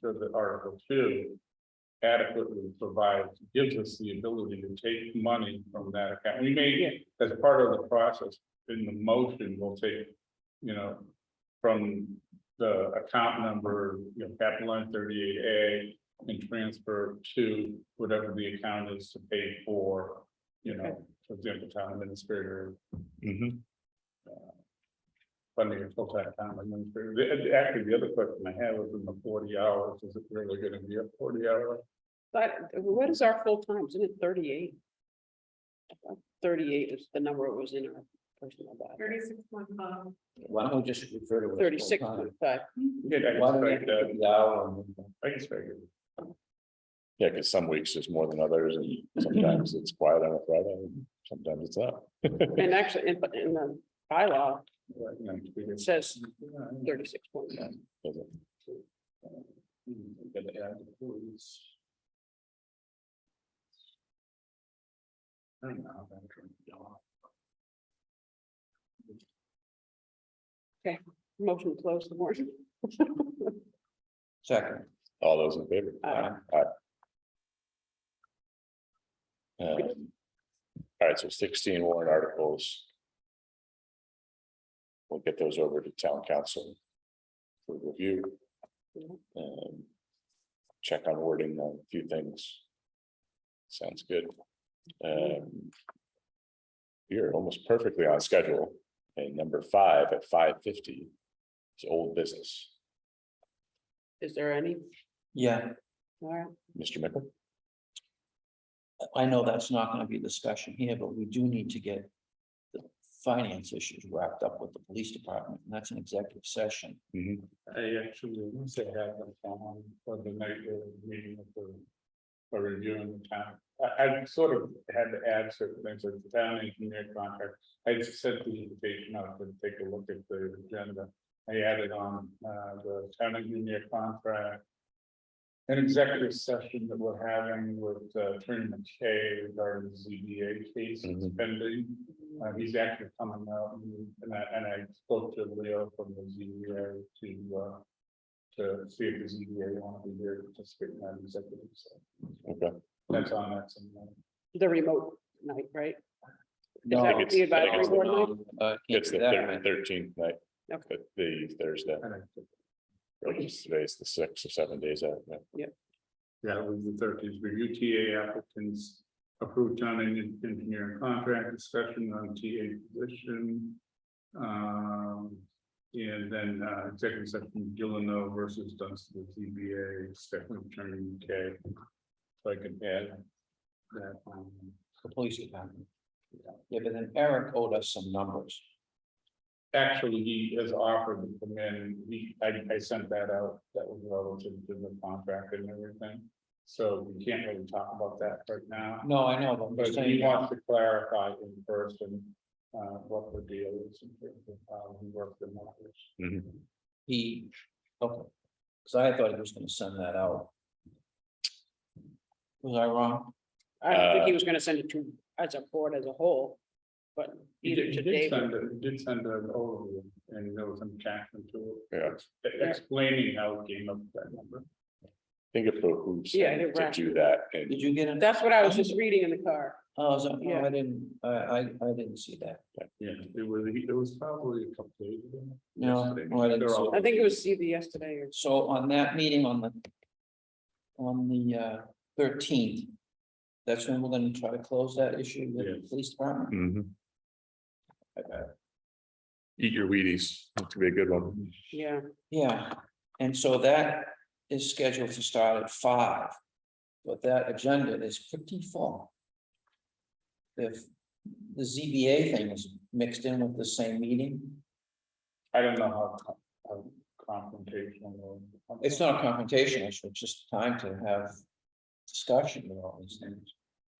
so that article two. Adequately provides, gives us the ability to take money from that account, we may, as part of the process, in the motion, we'll take. You know, from the account number, you know, capital line thirty-eight A. And transfer to whatever the account is to pay for, you know, for example, town administrator. Funding a full-time town administrator, The- the- actually, the other question I had was in the forty hours, is it really gonna be a forty hour? But what is our full time? Isn't it thirty-eight? Thirty-eight is the number it was in our personal body. Thirty-six point five. Why don't we just refer to it? as Thirty-six full-time? point five. Yeah, I Why don't we expect put that, the hour on it? I expect it. Yeah, because some weeks there's more than others, and sometimes it's quiet on a Friday, and sometimes it's up. And actually, in, but in the bylaw, Right, you know, it's bigger. it says Yeah, yeah. thirty-six point five. Doesn't- Mm, gotta add the employees. I don't know how that turned out. Motion to close the warrant. Second, All those in favor? Aye. Um, All right, so sixteen warrant articles. We'll get those over to town council. For review. Um, Check on wording on a few things. Sounds good. Um, You're almost perfectly on schedule, and number five at five fifty is old business. Is there any? yeah, All right. Mr. Mickle? I know that's not gonna be a discussion here, but we do need to get. The finance issues wrapped up with the police department, and that's an executive session. I actually, once they have them on um, for the night of the meeting of the. For reviewing the town, I, I sort of had to add certain things like the town engineer contract. I just sent the invitation out to take a look at the agenda. I added on, uh, the town engineer contract. An executive session that we're having with, uh, Attorney McKay regarding ZBA case Mhm. pending. Uh, he's actually coming out and- and I, and I spoke to Leo from the ZBA to, uh. To see if the ZBA want to be here to participate in that executive, so Okay. that's on that. uh, sometime. The remote night, right? No, that I think the it's- I think advisory it's the- board night? uh, can't It's do the that, right? thirteenth night. Okay. But the Thursday, And I- right, it's today's the sixth or seven days out. yeah. Yeah, it was the thirteenth, the UTA applicants approved town en- engineering contract discussion on TA position. Um, and then uh, executive session, Gillino versus Dunstan, ZBA, Stephanie Attorney K. So I can add that. um, The police department. Yeah, but then Eric owed us some numbers. Actually, he has offered to come in, he, I, I sent that out, that was relative to the contract and everything. So we can't really talk about that right now. No, I know, but I'm But just saying. he wants to clarify in person, uh, what the deal is in terms of how we work the matters. Mm-hmm. He, okay, because I thought he was gonna send that out. Was I wrong? I don't think he Uh, was gonna send it to, as a board as a whole, but He either did, to he did Dave. send, a- he did send an overview and there was some attachment to it. Yeah, e- Explaining how it came up with that number. I think it behooves Yeah, him you're to right. do that and Did you get it? That's what I was just reading in the car. Oh, is that- Yeah. no, I didn't, I, I, I didn't see that. Yeah, it was, it was probably a couple days ago. No, yesterday. well, I didn't They're see all- I think it was either yesterday or So on that meeting on the. On the uh thirteenth. That's when we're gonna try to close that issue with the Yes. police department. uh, Eat your Wheaties, that could be a good one. Yeah, Yeah, and so that is scheduled to start at five. But that agenda is pretty full. If the ZBA thing is mixed in with the same meeting, I don't know how, co- how confrontational. or- it's not a confrontation issue, it's just time to have discussion with all these things.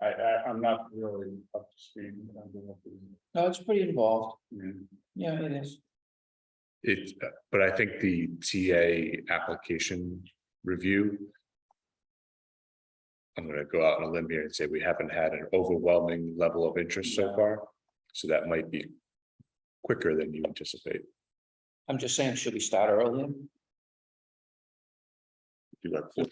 I, I, I'm not really up to speed. I don't know if it's- No, it's pretty involved. yeah. Yeah, it is. It, but I think the TA application review. I'm gonna go out on a limb here and say we haven't had an overwhelming level of interest so No. far, so that might be quicker than you anticipate. I'm just saying, should we start earlier? do that.